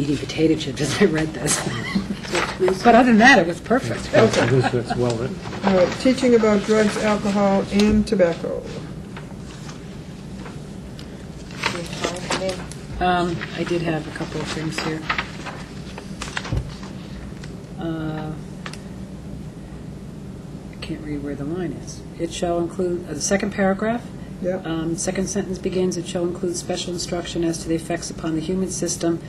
eating potato chips as I read this. But other than that, it was perfect. Okay. This- That's well written. All right, Uh, teaching about drugs, alcohol, and tobacco. Um, I did have a couple of things here. Uh, I can't read where the line is. It shall include, uh, the second paragraph, Yep. Oh. um, second sentence begins, it shall include special instruction as to the effects upon the human system.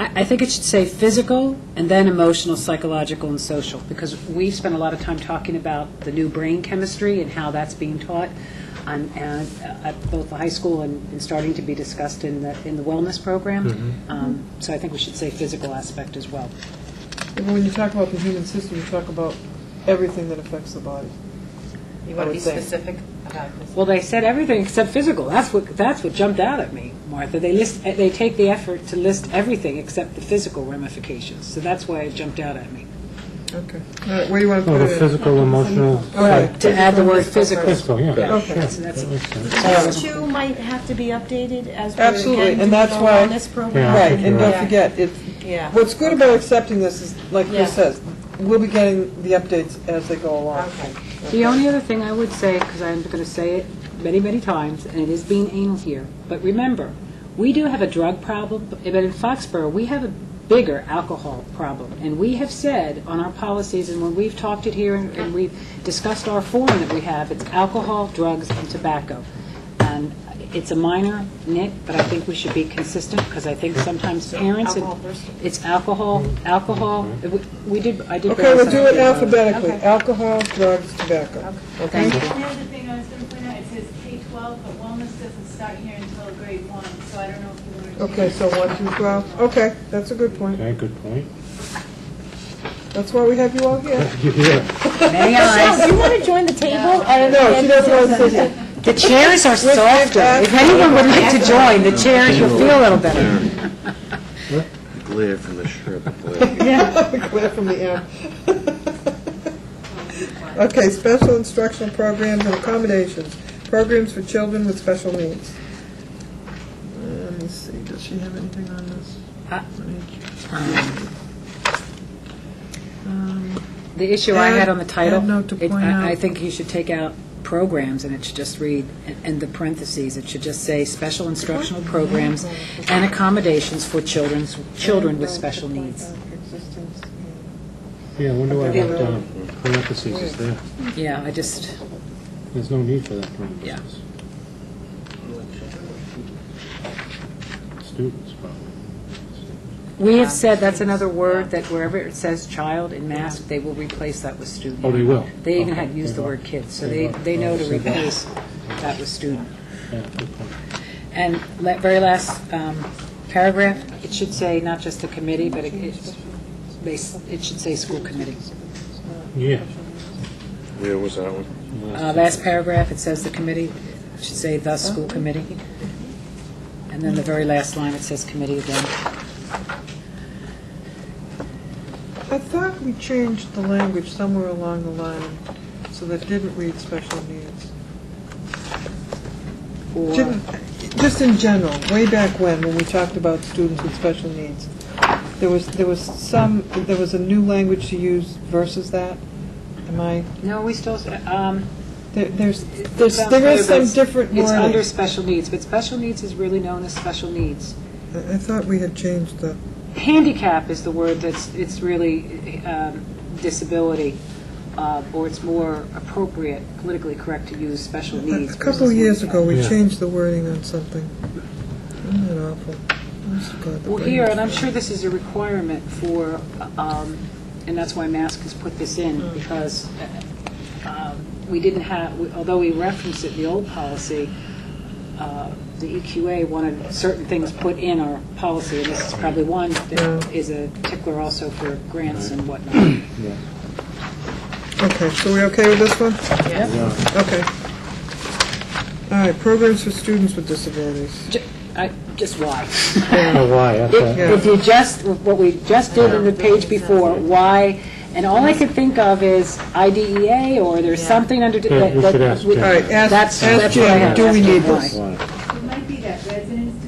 I, I think it should say physical, and then emotional, psychological, and social, because we spent a lot of time talking about the new brain chemistry and how that's being taught on, and, uh, at both the high school and, and starting to be discussed in the, in the wellness program. Um, So I think we should say physical aspect as well. And When you talk about the human system, you talk about everything that affects the body. You want to I would be say. specific about this? Well, they said everything except physical. That's what, that's what jumped out at me, Martha. They list, they take the effort to list everything except the physical ramifications. So that's why it jumped out at me. Okay. All right, where do you want to Oh, put the it? in? physical, emotional, All right. To add the word physical. physical, yeah. Yeah. Okay. sure, So that's- that makes sense. These two might have to be updated as we're Absolutely, again and doing the that's why- wellness Yeah. program. Right, and don't Yeah. forget, it's, Yeah. what's good about accepting this is, like Yeah. Chris says, we'll be getting the updates as they go along. Okay. The only other thing I would say, because I'm going to say it many, many times, and it is being anal here, but remember, we do have a drug problem, but but in Foxborough, we have a bigger alcohol problem. And we have said on our policies, and when we've talked it here, and and we've discussed our forum that we have, it's alcohol, drugs, and tobacco. And it's a minor nit, but I think we should be consistent, because I think sometimes parents... and- Alcohol first. It's alcohol, alcohol, we- we did, I did... Okay, bring we'll this do up. it alphabetically, Okay. alcohol, drugs, tobacco. Okay. The other thing I was going to point out, it says K-12, but wellness doesn't start here until grade one, so I don't know if you want to. Okay, so one through 12, okay, that's a good point. Okay, good point. That's why we have you all here. Yeah, Many eyes. Do you want to join the table? and- No, she doesn't want to sit here. The chairs are softer. If anyone would like to join, the chairs, you'll feel a little better. Glare from the strip of glare. Clear from the air. Okay, special instructional programs and accommodations, programs for children with special needs. Uh, Let me see, does she have anything on this? um, The issue I had on the title, Add note to it- point I I out. think you should take out programs, and it should just read, and- and the parentheses, it should just say, "Special instructional programs and accommodations for children's, children with special needs." Yeah, I wonder why that uh, parentheses is there. Yeah, I just, There's no need for that Yeah. parentheses. Students, probably. we have said, that's another word, that wherever it says child in mask, they will replace that with student. Oh, they will? They even Okay. had used the word kids, so they, they know to replace that with student. Yeah, good point. And la- very last um, paragraph, it should say not just the committee, but it, it's- they s- it should say school committee. Yeah. Where was that one? Uh, Last paragraph, it says the committee, it should say the school committee. And then the very last line, it says committee again. I thought we changed the language somewhere along the line, so that didn't read special needs. Or- Didn't- Just in general, way back when, when we talked about students with special needs, there was, there was some, there was a new language to use versus that. Am I, No, we still, s- um, there- there's, there's, it's there is unclear, some but different It's under wording. special needs, but special needs is really known as special needs. I thought we had changed the, handicap is the word that's, it's really um, disability, uh, or it's more appropriate, politically correct to use special needs. a couple versus years ago, we Yeah. changed the wording on something. Isn't that awful? Honest to God, the Well, here, brain- and I'm sure this is a requirement for, um, and that's why Mask has put this in, because uh, um, we didn't have, we- although we referenced it in the old policy, uh, the EQA wanted certain things put in our policy, and this is probably one that is a tickler also for grants and whatnot. Okay, so we okay with this one? Okay. All right, programs for students with disabilities. Ju- I- Just why? I don't know Oh, why, that's If a- Yeah. if you just, what we just did in the page before, why, and all I could think of is IDEA, or there's something under. Yeah, we should ask Jim. All right, ask- That's- ask that's what I Jim, had. do we That's need why. this? why. It might be that residents Oh,